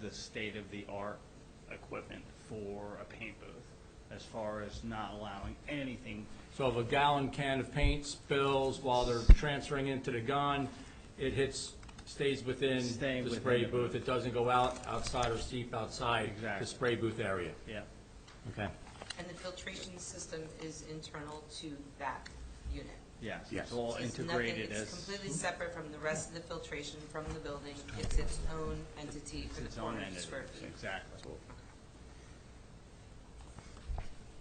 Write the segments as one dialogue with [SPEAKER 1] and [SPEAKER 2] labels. [SPEAKER 1] the state-of-the-art equipment for a paint booth, as far as not allowing anything.
[SPEAKER 2] So if a gallon can of paint spills while they're transferring into the gun, it hits, stays within
[SPEAKER 1] Staying
[SPEAKER 2] the
[SPEAKER 1] within
[SPEAKER 2] spray
[SPEAKER 1] the booth.
[SPEAKER 2] booth. It doesn't go out, outside or seep outside the
[SPEAKER 1] Exactly.
[SPEAKER 2] spray booth area.
[SPEAKER 1] Yeah,
[SPEAKER 2] Okay.
[SPEAKER 3] And the filtration system is internal to that unit?
[SPEAKER 1] yes.
[SPEAKER 4] Yes.
[SPEAKER 1] It's all
[SPEAKER 3] So it's nothing-
[SPEAKER 1] integrated
[SPEAKER 3] It's
[SPEAKER 1] as,
[SPEAKER 3] completely separate from the rest of the filtration from the building. It's its own entity
[SPEAKER 1] it's
[SPEAKER 3] for the
[SPEAKER 1] its own
[SPEAKER 3] 400
[SPEAKER 1] entity,
[SPEAKER 3] square feet.
[SPEAKER 1] exactly.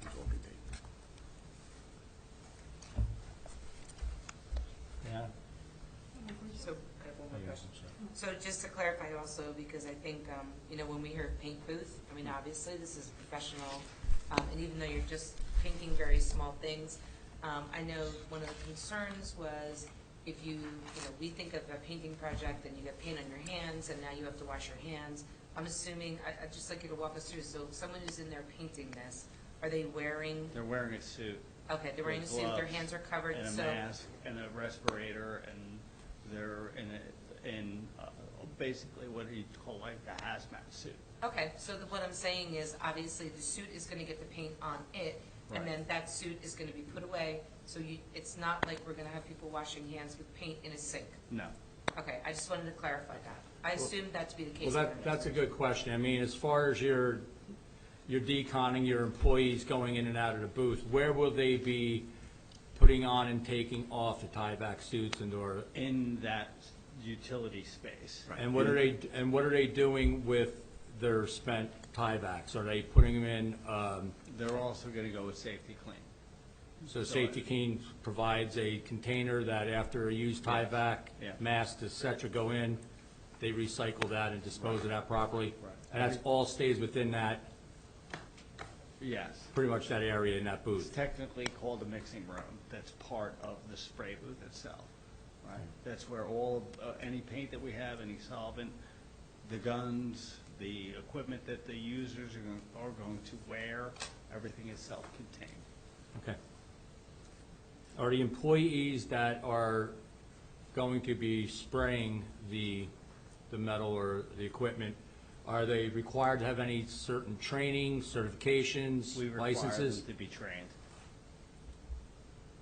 [SPEAKER 4] It's all contained.
[SPEAKER 2] Yeah.
[SPEAKER 3] So I have one more question. So just to clarify also, because I think, um, you know, when we hear paint booth, I mean, obviously, this is professional, um, and even though you're just painting very small things, um, I know one of the concerns was if you, you know, we think of a painting project and you get paint on your hands, and now you have to wash your hands. I'm assuming, I, I'd just like you to walk us through, so someone who's in there painting this, are they wearing,
[SPEAKER 1] They're wearing a suit
[SPEAKER 3] okay, they're wearing a
[SPEAKER 1] With
[SPEAKER 3] suit, their
[SPEAKER 1] gloves
[SPEAKER 3] hands are covered,
[SPEAKER 1] and a
[SPEAKER 3] so.
[SPEAKER 1] mask and a respirator, and they're in, a- in uh, basically what you call like the hazmat suit.
[SPEAKER 3] Okay, so the- what I'm saying is, obviously, the suit is gonna get the paint on it, and then that suit is gonna be put away, so you, it's not like we're gonna have people washing hands with paint in a sink.
[SPEAKER 1] No,
[SPEAKER 3] Okay, I just wanted to clarify that. I assumed that to be the
[SPEAKER 2] Well,
[SPEAKER 3] case.
[SPEAKER 2] that, that's a good question. I mean, as far as your, your deconning, your employees going in and out of the booth, where will they be putting on and taking off the tie-back suits and or,
[SPEAKER 1] in that utility space.
[SPEAKER 2] and what are they, and what are they doing with their spent tiebacks? Are they putting them in, um,
[SPEAKER 1] They're also going to go with safety clean.
[SPEAKER 2] So Safety King provides a container that after a used tieback,
[SPEAKER 1] Yeah.
[SPEAKER 2] masks, et cetera, go in, they recycle that and dispose of that properly.
[SPEAKER 1] Right.
[SPEAKER 2] And that's all stays within that,
[SPEAKER 1] Yes.
[SPEAKER 2] pretty much that area in that
[SPEAKER 1] It's
[SPEAKER 2] booth.
[SPEAKER 1] technically called a mixing room. That's part of the spray booth itself, right? That's where all, uh, any paint that we have, any solvent, the guns, the equipment that the users are going, are going to wear, everything is self-contained.
[SPEAKER 2] Okay. Are the employees that are going to be spraying the, the metal or the equipment, are they required to have any certain training, certifications,
[SPEAKER 1] We require
[SPEAKER 2] licenses?
[SPEAKER 1] them to be trained.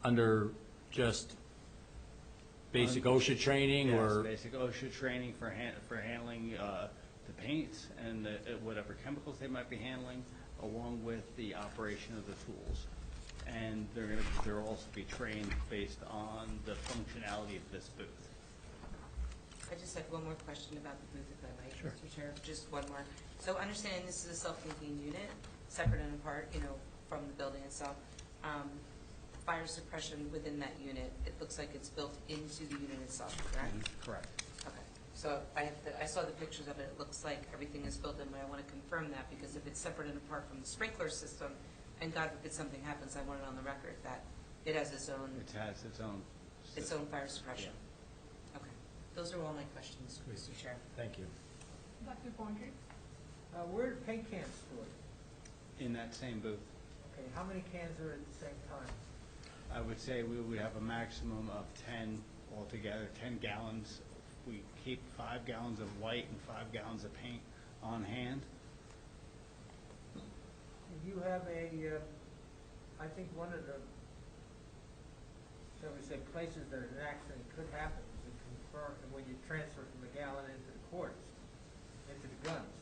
[SPEAKER 2] under just basic OSHA training
[SPEAKER 1] Yes,
[SPEAKER 2] or,
[SPEAKER 1] basic OSHA training for han, for handling, uh, the paints and the, uh, whatever chemicals they might be handling, along with the operation of the tools. And they're gonna, they're also be trained based on the functionality of this booth.
[SPEAKER 3] I just had one more question about the booth, if I might, Mr. Chair, just one more. So understanding this is a self-contained unit, separate and apart, you know, from the building itself, um, fire suppression within that unit, it looks like it's built into the unit itself, correct?
[SPEAKER 1] Mm-hmm. Correct.
[SPEAKER 3] Okay, so I have, the- I saw the pictures of it, it looks like everything is built in, but I want to confirm that, because if it's separate and apart from the sprinkler system, and God forbid something happens, I want it on the record that it has its own,
[SPEAKER 1] It has its own.
[SPEAKER 3] its own fire suppression. Okay, those are all my questions, Mr. Chair.
[SPEAKER 2] thank you.
[SPEAKER 5] Dr. Bondry?
[SPEAKER 6] Uh, where are paint cans stored?
[SPEAKER 1] In that same booth.
[SPEAKER 6] Okay, how many cans are at the same time?
[SPEAKER 1] I would say we would have a maximum of ten altogether, ten gallons. We keep five gallons of white and five gallons of paint on hand.
[SPEAKER 6] Do you have a, uh, I think one of the, shall we say, places that an accident could happen is in confirm, when you transfer from the gallon into the quarters, into the guns.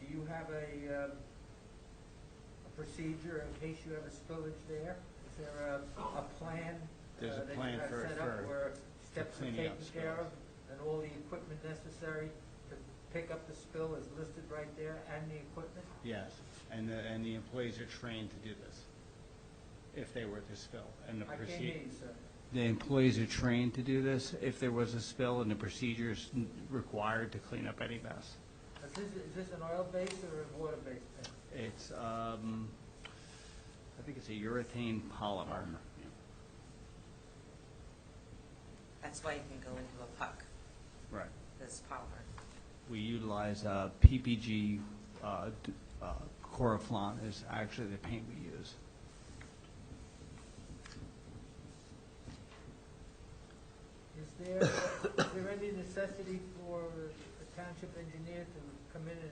[SPEAKER 6] Do you have a, um, a procedure in case you have a spillage there? Is there a, a plan? uh,
[SPEAKER 1] There's a
[SPEAKER 6] that you
[SPEAKER 1] plan
[SPEAKER 6] have
[SPEAKER 1] for-
[SPEAKER 6] set up
[SPEAKER 1] for-
[SPEAKER 6] Where steps are
[SPEAKER 1] cleaning
[SPEAKER 6] taken
[SPEAKER 1] up
[SPEAKER 6] care of
[SPEAKER 1] spills.
[SPEAKER 6] and all the equipment necessary to pick up the spill is listed right there and the equipment?
[SPEAKER 1] Yes, and the, and the employees are trained to do this if they were to spill. And the
[SPEAKER 6] I can't
[SPEAKER 1] procedure,
[SPEAKER 6] hear you, sir.
[SPEAKER 1] the employees are trained to do this if there was a spill and the procedures n- required to clean up any mess.
[SPEAKER 6] Is this, is this an oil-based or a water-based paint?
[SPEAKER 1] It's, um, I think it's a urethane polymer.
[SPEAKER 3] That's why you can go into a puck,
[SPEAKER 1] Right.
[SPEAKER 3] this polymer.
[SPEAKER 1] We utilize, uh, PPG, uh, d- uh, Coroflon is actually the paint we use.
[SPEAKER 6] Is there, is there any necessity for a township engineer to come in and